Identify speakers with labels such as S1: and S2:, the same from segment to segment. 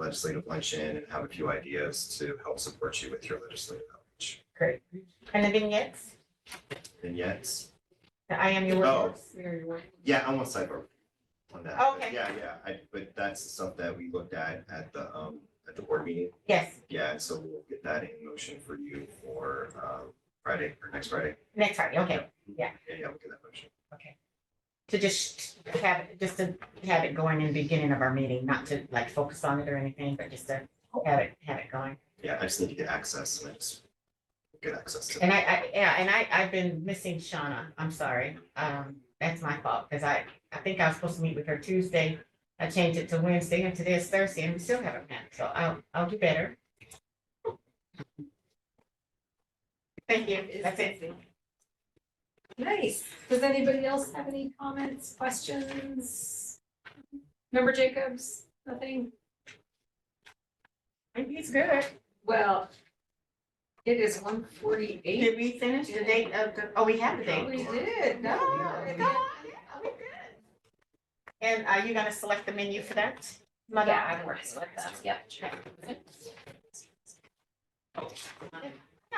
S1: legislative luncheon and have a few ideas to help support you with your legislative outreach.
S2: Great. Anything else?
S1: And yet,
S2: I am your
S1: Oh.
S2: workforce. We are your workforce.
S1: yeah, I want cyber on that. but
S2: Okay.
S1: Yeah, yeah, I, but that's the stuff that we looked at at the, um, at the board meeting.
S2: Yes,
S1: Yeah, and so we'll get that in motion for you for, um, Friday, or next Friday.
S2: next Friday, okay.
S1: Yeah, yeah, we'll get that motion.
S2: To just have, it, just to have it going in the beginning of our meeting, not to like focus on it or anything, but just to have it, have it going.
S1: Yeah, I just need to get access and I just get access to.
S2: And I, I, yeah, and I, I've been missing Shauna, I'm sorry, um, that's my fault, because I, I think I was supposed to meet with her Tuesday. I changed it to Wednesday, and today is Thursday, and we still haven't met, so I'll, I'll do better. Thank you, that's it.
S3: Nice. Does anybody else have any comments, questions? Member Jacobs, nothing?
S2: I think It's good.
S3: Well, it is one forty-eight.
S2: Did we finish the date of the, oh, we have the date.
S3: We did, no,
S2: Yeah.
S3: come on, yeah, we good.
S2: And are you gonna select the menu for that? Mother,
S4: Yeah, I'm working with them, yep.
S2: I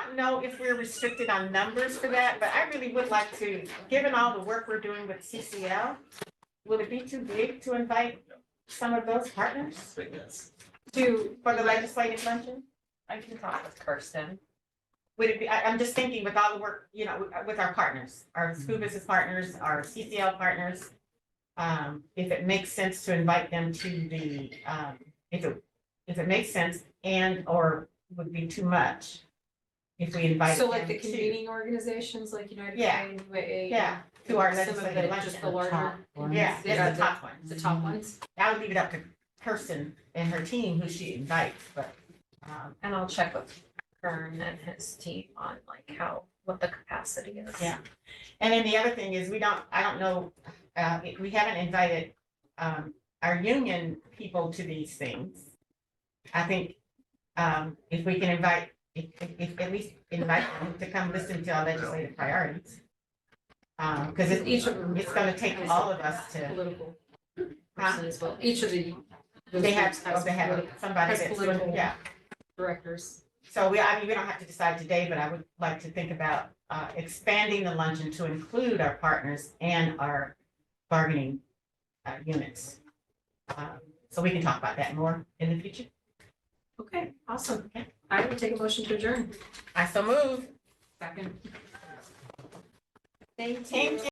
S2: don't know if we're restricted on numbers for that, but I really would like to, given all the work we're doing with CCL, would it be too big to invite some of those partners
S1: But yes.
S3: To,
S2: for the legislative luncheon?
S4: I can talk with Kirsten.
S2: Would it be, I, I'm just thinking with all the work, you know, with- with our partners, our school
S4: Mm-hmm.
S2: business partners, our CCL partners. Um, if it makes sense to invite them to the, um, if it, if it makes sense and or would be too much. If we invite
S3: so
S2: them
S3: like the
S2: to,
S3: convening organizations like United
S2: Yeah.
S3: Way, UAA.
S2: yeah, to our
S3: Some of the-
S2: legislative luncheon.
S3: Just the larger.
S2: Yeah, that's the top one.
S3: The top ones.
S2: I would leave it up to Kirsten and her team who she invites, but, um,
S4: And I'll check with Kern and his team on like how, what the capacity is.
S2: Yeah. and then the other thing is, we don't, I don't know, uh, we haven't invited, um, our union people to these things. I think, um, if we can invite, if, if, if at least invite them to come listen to our legislative priorities. Um, cause it's,
S3: Each of them.
S2: it's gonna take all of us to,
S3: Political
S2: Huh?
S3: person as well, each of the. those
S2: they have,
S3: groups
S2: oh, they have
S3: political
S2: somebody
S3: has
S2: that's,
S3: political-
S2: yeah.
S3: Directors.
S2: So we, I mean, we don't have to decide today, but I would like to think about uh expanding the luncheon to include our partners and our bargaining uh units. Um, So we can talk about that more in the future.
S3: Okay, awesome.
S2: Okay.
S3: I will take a motion to adjourn.
S2: I so move.
S3: Second.
S2: Thank you.